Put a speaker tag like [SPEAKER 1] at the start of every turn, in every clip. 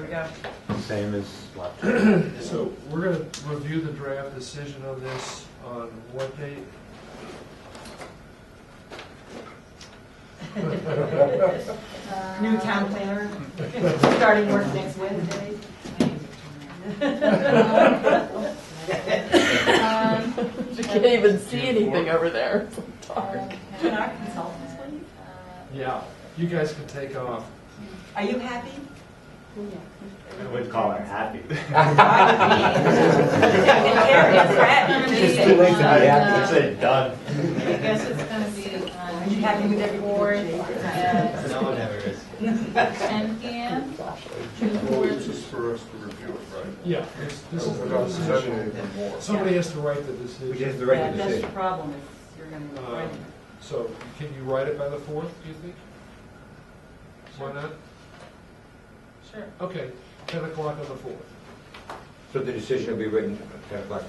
[SPEAKER 1] we go.
[SPEAKER 2] Same as laptop.
[SPEAKER 3] So we're gonna review the draft decision on this on what date?
[SPEAKER 1] New town planner, starting work next Wednesday.
[SPEAKER 4] Um,
[SPEAKER 5] You can't even see anything over there. It's dark.
[SPEAKER 1] Can our consultants leave?
[SPEAKER 3] Yeah. You guys can take off.
[SPEAKER 1] Are you happy?
[SPEAKER 2] I would call her happy.
[SPEAKER 4] It's too late to be happy.
[SPEAKER 2] It's a done.
[SPEAKER 4] I guess it's gonna be
[SPEAKER 1] Are
[SPEAKER 4] on
[SPEAKER 1] you happy with
[SPEAKER 4] June
[SPEAKER 1] every
[SPEAKER 4] fourth at
[SPEAKER 6] No one ever is.
[SPEAKER 4] ten PM.
[SPEAKER 7] Well, it's just for us to review it, right?
[SPEAKER 3] Yeah. This this is
[SPEAKER 7] We're
[SPEAKER 3] the
[SPEAKER 7] not deciding
[SPEAKER 3] decision.
[SPEAKER 7] anything more.
[SPEAKER 3] Somebody has to write the
[SPEAKER 6] Which is
[SPEAKER 3] decision.
[SPEAKER 6] the
[SPEAKER 1] Yeah, That's
[SPEAKER 6] right
[SPEAKER 1] the
[SPEAKER 6] decision.
[SPEAKER 1] problem, is you're gonna be
[SPEAKER 3] Uh, So can you write it by the fourth, do you think? Why not?
[SPEAKER 4] Sure.
[SPEAKER 3] Okay, ten o'clock on the fourth.
[SPEAKER 6] So the decision will be written at ten o'clock.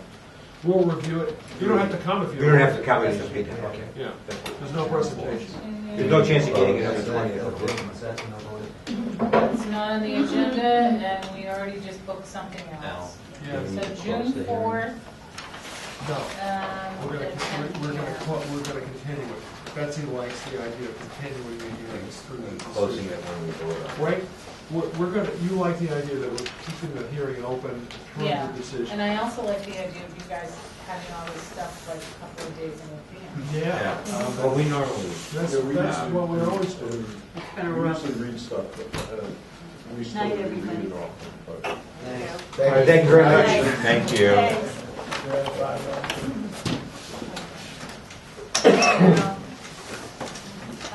[SPEAKER 3] We'll review it. You don't have to come if you
[SPEAKER 6] We
[SPEAKER 3] don't.
[SPEAKER 6] don't have to come in and speak now, okay.
[SPEAKER 3] Yeah, there's no presentation.
[SPEAKER 6] There's no chance of getting it on the
[SPEAKER 7] That's
[SPEAKER 6] twentieth.
[SPEAKER 7] that's no vote.
[SPEAKER 4] It's not on the agenda and we already just booked something else.
[SPEAKER 3] Yeah,
[SPEAKER 4] So
[SPEAKER 6] Close the
[SPEAKER 4] June
[SPEAKER 6] hearing.
[SPEAKER 4] fourth,
[SPEAKER 3] no.
[SPEAKER 4] um,
[SPEAKER 3] We're gonna,
[SPEAKER 4] at ten
[SPEAKER 3] we're- we're gonna,
[SPEAKER 4] PM.
[SPEAKER 3] cl- we're gonna continue it. Betsy likes the idea of continuing the hearings through the
[SPEAKER 6] Closing
[SPEAKER 3] decision.
[SPEAKER 6] it when we vote on it.
[SPEAKER 3] Right? We're, we're gonna, you like the idea that we're keeping the hearing open through the
[SPEAKER 4] Yeah, and
[SPEAKER 3] decision.
[SPEAKER 4] I also like the idea of you guys having all this stuff like a couple of days in advance.
[SPEAKER 3] Yeah. Um,
[SPEAKER 6] Yeah. Well, we normally.
[SPEAKER 3] That's,
[SPEAKER 7] Yeah, we
[SPEAKER 3] that's
[SPEAKER 7] usually-
[SPEAKER 3] what we're always doing.
[SPEAKER 1] It's been a
[SPEAKER 7] We
[SPEAKER 1] rough.
[SPEAKER 7] usually read stuff, but uh, we still
[SPEAKER 1] Night,
[SPEAKER 7] review
[SPEAKER 1] everybody.
[SPEAKER 7] it all. but-
[SPEAKER 6] Thank you very much.
[SPEAKER 2] Thank you.
[SPEAKER 1] Thanks.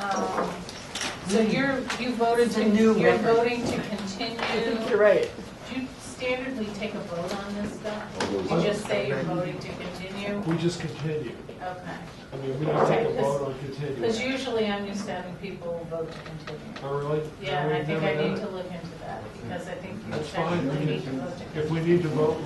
[SPEAKER 4] Um, So you're, you voted
[SPEAKER 1] It's a
[SPEAKER 4] to,
[SPEAKER 1] new
[SPEAKER 4] you're
[SPEAKER 1] record.
[SPEAKER 4] voting to
[SPEAKER 5] I
[SPEAKER 4] continue,
[SPEAKER 5] think
[SPEAKER 4] do
[SPEAKER 5] you're right.
[SPEAKER 4] you standardly take a vote on this stuff? You just say you're voting to continue?
[SPEAKER 3] We just continue.
[SPEAKER 4] Okay.
[SPEAKER 3] I mean, we don't take a vote on continuing.
[SPEAKER 4] Because usually I'm used to having people vote to continue.
[SPEAKER 3] Oh, really?
[SPEAKER 4] Yeah, and I
[SPEAKER 3] We've
[SPEAKER 4] think
[SPEAKER 3] never
[SPEAKER 4] I
[SPEAKER 3] done
[SPEAKER 4] need
[SPEAKER 3] it.
[SPEAKER 4] to look into that, because I think you
[SPEAKER 3] That's fine.
[SPEAKER 4] technically
[SPEAKER 3] We
[SPEAKER 4] need to
[SPEAKER 3] can-
[SPEAKER 4] vote to continue.
[SPEAKER 3] If we need to vote,